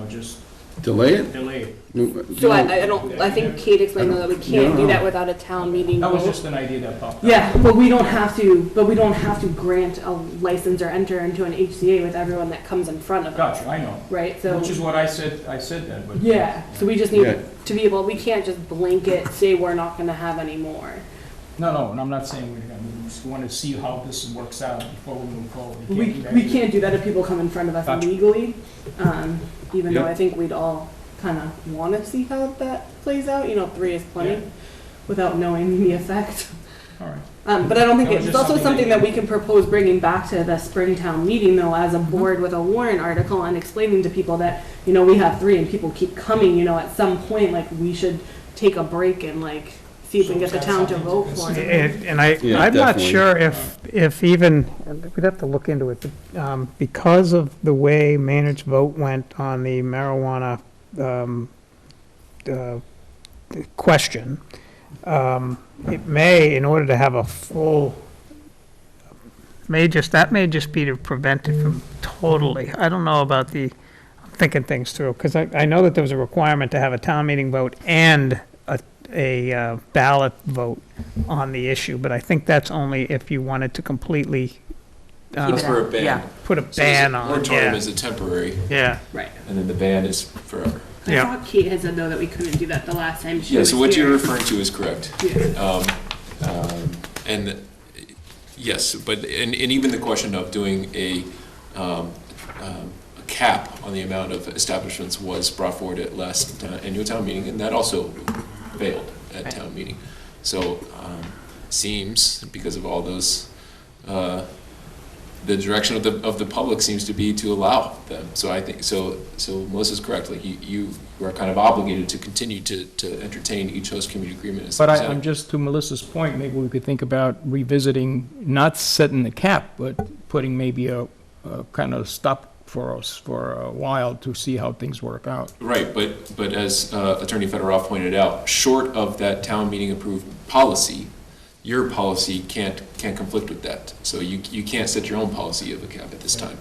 Oh, just Delay it? delay it. So I, I don't, I think Kate explained though that we can't do that without a town meeting That was vote. just an idea that popped up. Yeah, but we don't have to, but we don't have to grant a license or enter into an HCA with everyone that comes in front of us, Gotcha, I know, right? So, which is what I said, I said that, but. yeah, so we just Yeah. need to be able, we can't just blanket say we're not gonna have any more. No, no, and I'm not saying we're gonna, we just wanna see how this works out before we move forward. We, do that. we can't do that if people come in front of us Gotcha. legally, um, even though Yeah. I think we'd all kinda wanna see how that plays out, you know, three is Yeah. plenty, without knowing the effect. All right, Um, but I don't think That was it's just also something something that- that we can propose bringing back to the Springtown meeting though, as a board with a warrant article and explaining to people that, you know, we have three and people keep coming, you know, at some point, like, we should take a break and like, see if we can get the town to vote for it. And and I, Yeah, I'm not definitely. sure if, if even, we'd have to look into it, but, um, because of the way Maynard's vote went on the marijuana, um, uh, question, um, it may, in order to have a full, may just, that may just be to prevent it from totally, I don't know about the, I'm thinking things through, because I, I know that there was a requirement to have a town meeting vote and a, a uh, ballot vote on the issue, but I think that's only if you wanted to completely uh, That's for a ban. Yeah. put a So there's a ban on, it. Moratorium yeah, is a temporary, yeah. Right. and then the ban is forever. I Yeah. thought Kate had said though that we couldn't do that the last time she Yeah, was so what you're here. referring to is correct. Yeah. Um, um, And, uh, yes, but, and, and even the question of doing a, um, um, a cap on the amount of establishments was brought forward at last uh, annual town meeting, and that also failed at town meeting. So, um, seems, because of all those, uh, the direction of the, of the public seems to be to allow them. So I think, so, so Melissa's correct, like, you, you are kind of obligated to continue to, to entertain each host community agreement as but I, presented. I'm just, to Melissa's point, maybe we could think about revisiting, not setting the cap, but putting maybe a, a kind of stop for us for a while to see how things work out. Right, but, but as uh, Attorney Federoff pointed out, short of that town meeting approved policy, your policy can't, can't conflict with that. So you, you can't set your own policy of a cap at this time.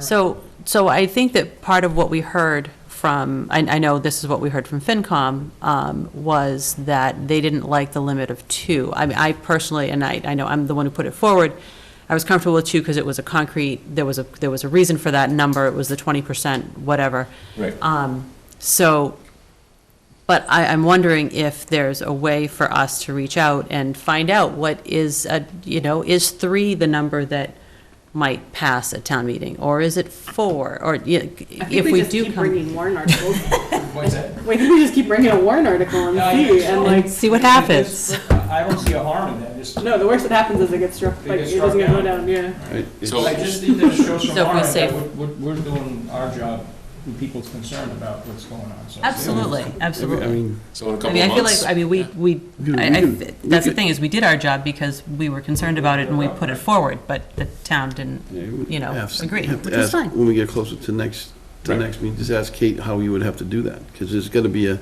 So, so I think that part of what we heard from, I, I know this is what we heard from FinCom, um, was that they didn't like the limit of two. I mean, I personally, and I, I know I'm the one who put it forward, I was comfortable with two because it was a concrete, there was a, there was a reason for that number, it was the twenty percent, whatever. Right. Um, so, but I, I'm wondering if there's a way for us to reach out and find out what is, a- you know, is three the number that might pass at town meeting? Or is it four? Or yeah, I think if we just do keep come, Bringing warrant articles. What's that? Wait, we just keep bringing a warrant article Yeah, I and see, guess and so. like, and see what happens. I don't see a harm in that, just, no, the worst that happens is it gets struck, They like, get it struck doesn't go down. down, yeah. So- I just think that it shows from So if we're our end safe. that we're, we're- we're doing our job, with people's concern about what's going on, so. Absolutely, I absolutely. mean, So in a I couple mean, of I feel like, months, I mean, we, we, Yeah, we I, I, can- we that's the can- thing, is we did our job because we were concerned about it and we put it forward, but the town didn't, yeah, we you know, have to- agree, have to which is ask fine. When we get closer to next, to Right. next meeting, just ask Kate how you would have to do that, because there's gonna be a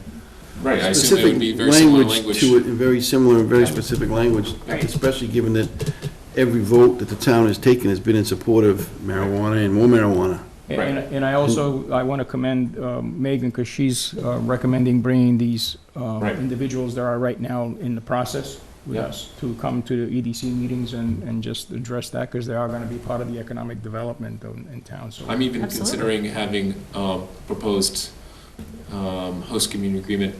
right, I assume it would be specific very similar language language. to it, and very similar and very specific language, Right. especially given that every vote that the town has taken has been in support of marijuana and more marijuana. And- Right. And I also, I want to commend um, Megan because she's uh, recommending bringing these uh, Right. individuals that are right now in the process with Yeah. us to come to the EDC meetings and, and just address that because they are going to be part of the economic development in in town, so. I'm even Absolutely. considering having um, proposed um, host community agreement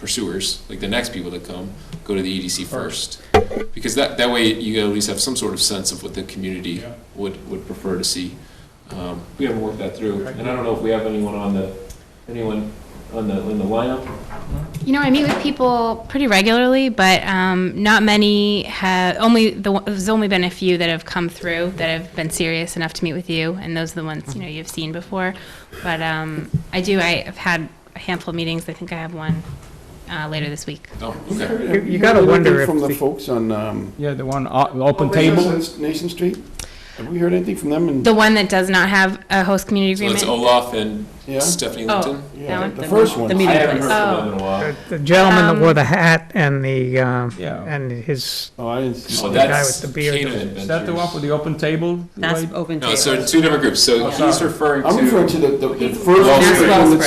pursuers, like the next people that come, go to the EDC first. Because that, that way you at least have some sort of sense of what the community Yeah. would, would prefer to see. Um, We haven't worked that through, Right. and I don't know if we have anyone on the, anyone on the, in the lineup? You know, I meet with people pretty regularly, but um, not many have. Only the, one- there's only been a few that have come through that have been serious enough to meet with you, and those are the ones you know you've seen before. But um, I do. I have had a handful of meetings. I think I have one uh, later this week. Oh, okay. You- you gotta wonder if From the the- folks on, um, Yeah, the one, o- open table. Nation Street? Have we heard anything from them? And The one that does not have a host community So it's agreement. Olaf and Yeah. Stephanie Oh. Linton? that Yeah, one? the first The one. I meeting haven't place. heard from them in a while. The- The gentleman that wore Um, the hat and the, um, Yeah. and his, Oh, I didn't see. Oh, guy that's with the beard. Canaan Is that the one Adventures. for the open table? That's Lloyd? open to No, so two different groups, so Oh, he's sorry. referring to. I'm referring to the, the the first. That's one Wellsboro. that's